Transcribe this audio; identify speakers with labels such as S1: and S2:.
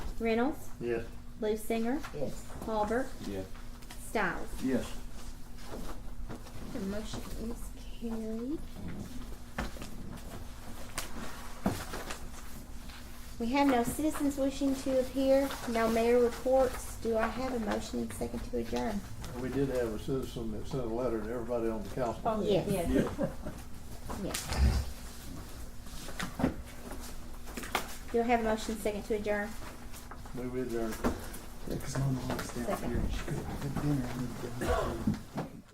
S1: Reynolds,
S2: Yes.
S1: Lucinger,
S3: yes.
S1: Halbert,
S4: Yes.
S1: Styles.
S2: Yes.
S1: The motion is carried. We have no citizens wishing to appear, no mayor reports. Do I have a motion and second to adjourn?
S2: We did have a citizen that sent a letter to everybody on the council.
S3: Oh,
S1: Yes.
S3: yes.
S1: Yes. Do I have a motion and second to adjourn?
S2: Move adjourned.
S5: Yeah, 'cause my mom's down
S1: Second.
S5: here and she could have had dinner and then